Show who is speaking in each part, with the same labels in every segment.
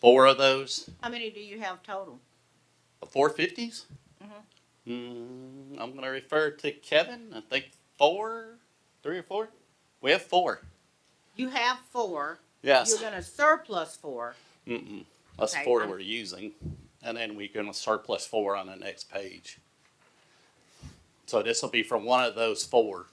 Speaker 1: four of those,
Speaker 2: How many do you have total?
Speaker 1: four fifties?
Speaker 2: Mhm.
Speaker 1: Mm, I'm gonna refer to Kevin, I think four, three or four? We have four,
Speaker 2: You have four,
Speaker 1: yes.
Speaker 2: you're gonna surplus four,
Speaker 1: Mm-mm, that's the
Speaker 2: Okay,
Speaker 1: four
Speaker 2: I'm-
Speaker 1: we're using, and then we're gonna surplus four on the next page. So this will be from one of those four.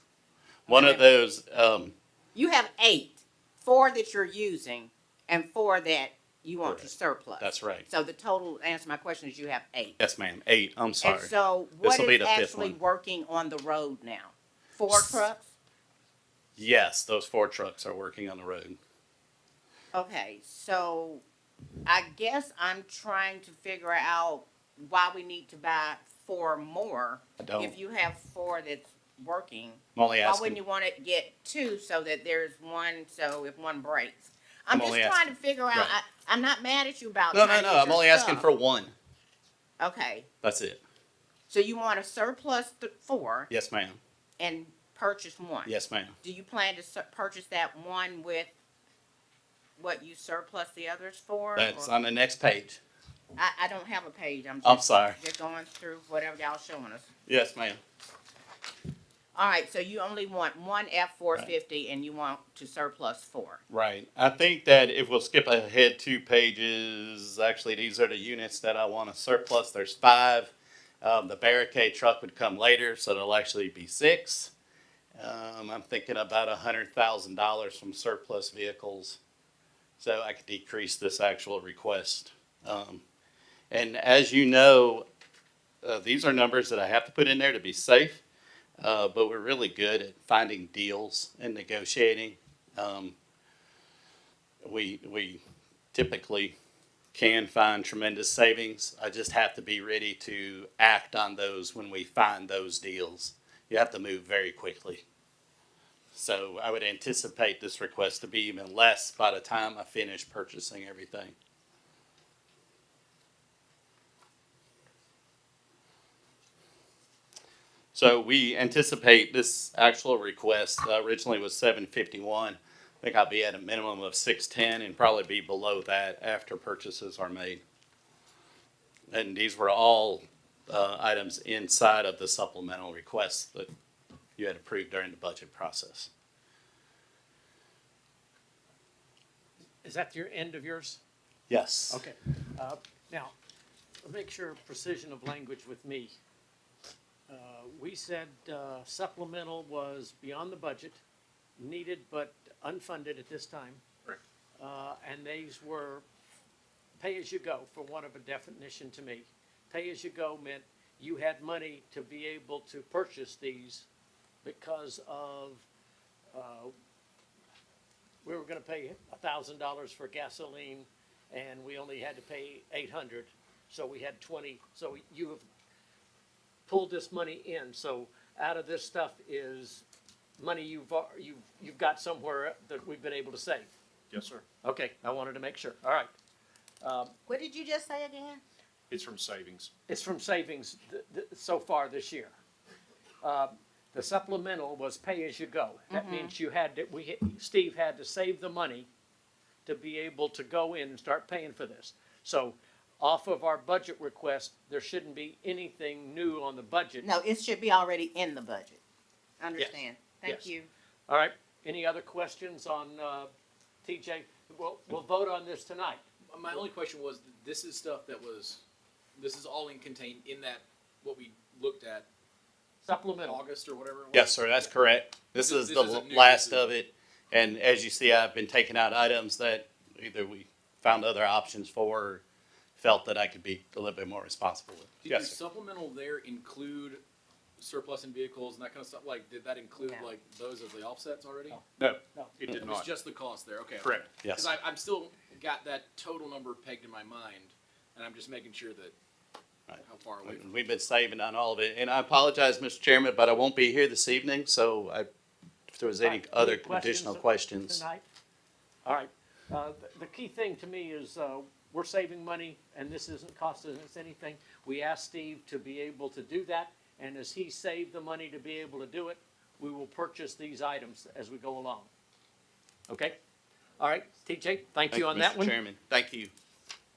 Speaker 1: One of
Speaker 2: Okay.
Speaker 1: those, um,
Speaker 2: you have eight, four that you're using and four that you want to
Speaker 1: Correct.
Speaker 2: surplus.
Speaker 1: that's right.
Speaker 2: So the total, to answer my question, is you have eight.
Speaker 1: Yes, ma'am, eight, I'm
Speaker 2: And
Speaker 1: sorry.
Speaker 2: so what
Speaker 1: This'll be
Speaker 2: is
Speaker 1: the fifth
Speaker 2: actually
Speaker 1: one.
Speaker 2: working on the road now? Four
Speaker 1: S-
Speaker 2: trucks?
Speaker 1: Yes, those four trucks are working on the road.
Speaker 2: Okay, so I guess I'm trying to figure out why we need to buy four more.
Speaker 1: I don't,
Speaker 2: If you have four that's working,
Speaker 1: I'm only
Speaker 2: why wouldn't
Speaker 1: asking,
Speaker 2: you wanna get two so that there's one, so if one breaks?
Speaker 1: I'm
Speaker 2: I'm just
Speaker 1: only
Speaker 2: trying to figure out, I,
Speaker 1: Right.
Speaker 2: I'm not mad at you about
Speaker 1: no, no,
Speaker 2: trying to
Speaker 1: no,
Speaker 2: get
Speaker 1: I'm
Speaker 2: your
Speaker 1: only asking
Speaker 2: stuff.
Speaker 1: for one,
Speaker 2: Okay,
Speaker 1: that's it.
Speaker 2: so you wanna surplus th- four
Speaker 1: Yes, ma'am,
Speaker 2: and purchase one?
Speaker 1: yes, ma'am,
Speaker 2: Do you plan to sur- purchase that one with what you surplus the others for?
Speaker 1: that's
Speaker 2: or-
Speaker 1: on the next page,
Speaker 2: I, I don't have a page, I'm
Speaker 1: I'm
Speaker 2: just,
Speaker 1: sorry,
Speaker 2: just going through whatever y'all showing us.
Speaker 1: yes, ma'am,
Speaker 2: All right, so you only want one F four fifty and you want to surplus four.
Speaker 1: right. I think that if we'll skip ahead two pages, actually, these are the units that I wanna surplus, there's five. Um, the barricade truck would come later, so there'll actually be six. Um, I'm thinking about a hundred thousand dollars from surplus vehicles. So I could decrease this actual request. Um, and as you know, uh, these are numbers that I have to put in there to be safe. Uh, but we're really good at finding deals and negotiating. Um, we, we typically can find tremendous savings. I just have to be ready to act on those when we find those deals. You have to move very quickly. So I would anticipate this request to be even less by the time I finish purchasing everything. So we anticipate this actual request uh, originally was seven fifty-one. I think I'll be at a minimum of six ten and probably be below that after purchases are made. And these were all uh, items inside of the supplemental requests that you had approved during the budget process.
Speaker 3: Is that your end of yours?
Speaker 1: Yes.
Speaker 3: Okay. Uh, Now, make sure precision of language with me. Uh, We said uh, supplemental was beyond the budget, needed but unfunded at this time. Uh, And these were pay-as-you-go, for want of a definition to me. Pay-as-you-go meant you had money to be able to purchase these because of, uh, we were gonna pay a thousand dollars for gasoline, and we only had to pay eight hundred, so we had twenty, so you have pulled this money in, so out of this stuff is money you've, al- you've, you've got somewhere that we've been able to save.
Speaker 4: Yes, sir.
Speaker 3: Okay, I wanted to make sure, all right. Um,
Speaker 2: What did you just say again?
Speaker 4: It's from savings.
Speaker 3: It's from savings th- th- so far this year. Uh, The supplemental was pay-as-you-go. That means you had, to- we, Steve had to save the money to be able to go in and start paying for this. So off of our budget request, there shouldn't be anything new on the budget.
Speaker 2: No, it should be already in the budget. Understand? Thank
Speaker 3: Yes.
Speaker 2: you.
Speaker 3: All right, any other questions on uh, TJ? We'll, we'll vote on this tonight.
Speaker 5: My only question was, this is stuff that was, this is all in contained in that, what we looked at,
Speaker 3: Supplemental,
Speaker 5: August or whatever it was?
Speaker 1: Yes, sir, that's correct. This
Speaker 5: This-
Speaker 1: is
Speaker 5: this
Speaker 1: the
Speaker 5: isn't new,
Speaker 1: last
Speaker 5: this is-
Speaker 1: of it. And as you see, I've been taking out items that either we found other options for, or felt that I could be a little bit more responsible with.
Speaker 5: Did your
Speaker 1: Yes, sir.
Speaker 5: supplemental there include surplus in vehicles and that kind of stuff? Like, did that include
Speaker 2: No.
Speaker 5: like those as the offsets already?
Speaker 4: No,
Speaker 3: No.
Speaker 4: it
Speaker 5: It
Speaker 4: did
Speaker 5: was
Speaker 4: not.
Speaker 5: just the cost there, okay.
Speaker 4: Correct.
Speaker 1: Yes.
Speaker 5: Cause I, I'm still got that total number pegged in my mind, and I'm just making sure that,
Speaker 1: Right.
Speaker 5: how far away. from-
Speaker 1: We've been saving on all of it. And I apologize, Mr. Chairman, but I won't be here this evening, so I, if there was any
Speaker 3: Right, any
Speaker 1: other
Speaker 3: questions
Speaker 1: additional
Speaker 3: of-
Speaker 1: questions.
Speaker 3: tonight. All right, uh, the, the key thing to me is, uh, we're saving money and this isn't costing us anything. We asked Steve to be able to do that, and as he saved the money to be able to do it, we will purchase these items as we go along. Okay? All right, TJ, thank
Speaker 1: Thank
Speaker 3: you
Speaker 1: you,
Speaker 3: on that
Speaker 1: Mr.
Speaker 3: one.
Speaker 1: Chairman. Thank you.